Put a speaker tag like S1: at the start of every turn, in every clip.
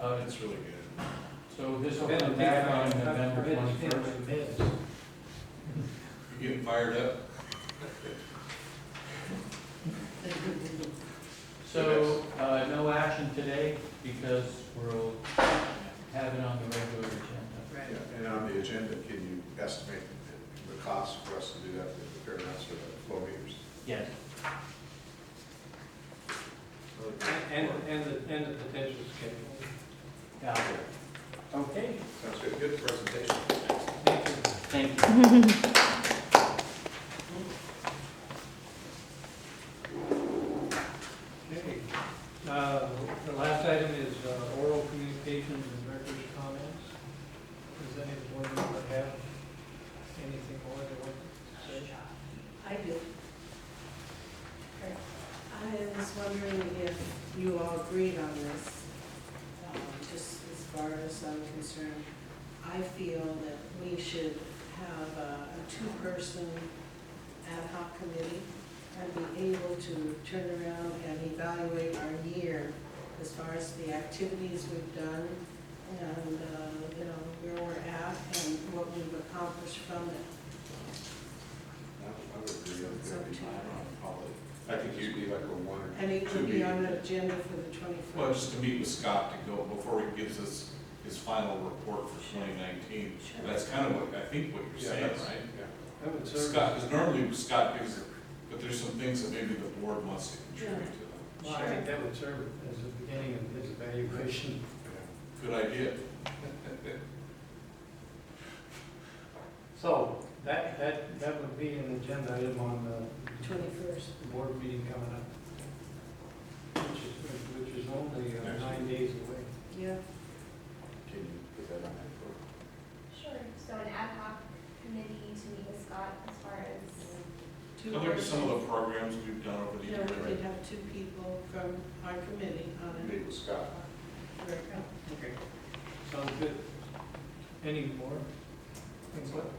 S1: Uh,
S2: It's really good.
S1: so this will come back on November twenty-first.
S2: You're getting fired up?
S1: So, uh, no action today because we'll have it on the regular agenda.
S2: Yeah, And on the agenda, can you estimate the- the cost for us to do that, the fair amounts for the flow meters?
S1: Yes,
S3: And, and the, and the potential schedule.
S1: got it. Okay,
S2: Sounds good, good presentation.
S3: Thank you.
S1: thank you.
S3: Okay, Uh, the last item is uh, oral communications and director's comments. Does any board member have anything more they want to say?
S4: I do. I was wondering if you all agreed on this, um, just as far as I'm concerned. I feel that we should have a a two-person ad hoc committee and be able to turn around and evaluate our year as far as the activities we've done and, uh, you know, where we're at and what we've accomplished from it.
S2: I I would agree on
S4: It's up
S2: that,
S4: to you.
S2: probably. I think you'd be like a one or
S4: And it
S2: two
S4: could be on
S2: meeting.
S4: the agenda for the
S5: Well,
S4: twenty-first.
S5: just to meet with Scott to go, before he gives us his final report for twenty nineteen.
S4: Sure.
S5: That's kind of what, I think what you're
S2: Yeah,
S5: saying,
S2: that's-
S5: right?
S2: yeah.
S3: I would serve.
S5: Scott, because normally Scott gives it, but there's some things that maybe the board wants to contribute to them.
S3: Well, I think that would serve as the beginning of his evaluation.
S2: Yeah.
S5: Good idea.
S3: So that, that, that would be an agenda item on
S4: Twenty-first.
S3: the board meeting coming up, which is, which is only uh, nine days away.
S4: Yeah.
S2: Can you put that on that for?
S6: Sure, so an ad hoc committee to meet with Scott as far as,
S4: Two
S5: I looked at some of
S4: persons.
S5: the programs we've done over the
S4: Yeah, we could
S5: years.
S4: have two people from our committee on it.
S2: Meet with Scott.
S4: Right.
S3: Okay. Sounds good. Any more?
S2: That's
S3: Input?
S2: good.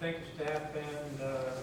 S3: Thank you, staff and uh,